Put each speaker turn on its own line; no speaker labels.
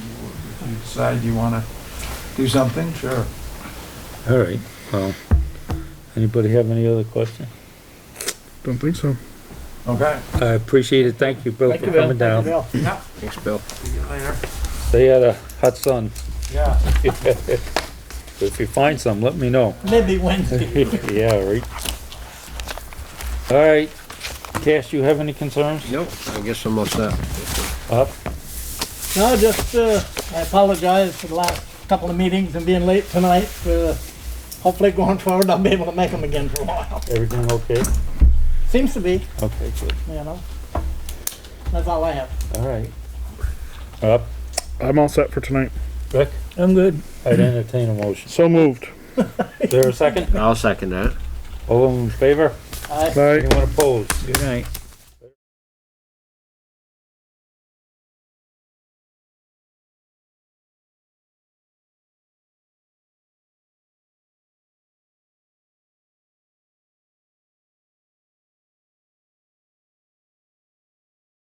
decide you want to do something, sure.
All right, well, anybody have any other question?
Don't think so.
Okay.
I appreciate it, thank you, Bill,
Thank
for
you, Bill.
coming down.
Yeah.
Thanks, Bill.
See you later.
They had a hot sun.
Yeah.
If you find some, let me know.
Maybe Wednesday.
Yeah, right. All right, Cash, you have any concerns?
Nope, I guess I'm all set.
Up?
No, just, uh, I apologize for the last couple of meetings and being late tonight. Uh, Hopefully going forward, I'll be able to make them again for a while.
Everything okay?
Seems to be,
Okay, good.
you know. That's all I have.
All right. Up?
I'm all set for tonight.
Rick?
I'm good.
I'd entertain a motion.
So moved.
Is there a second?
I'll second that.
All in favor?
Aye.
Bye.
Anyone opposed?
Good night.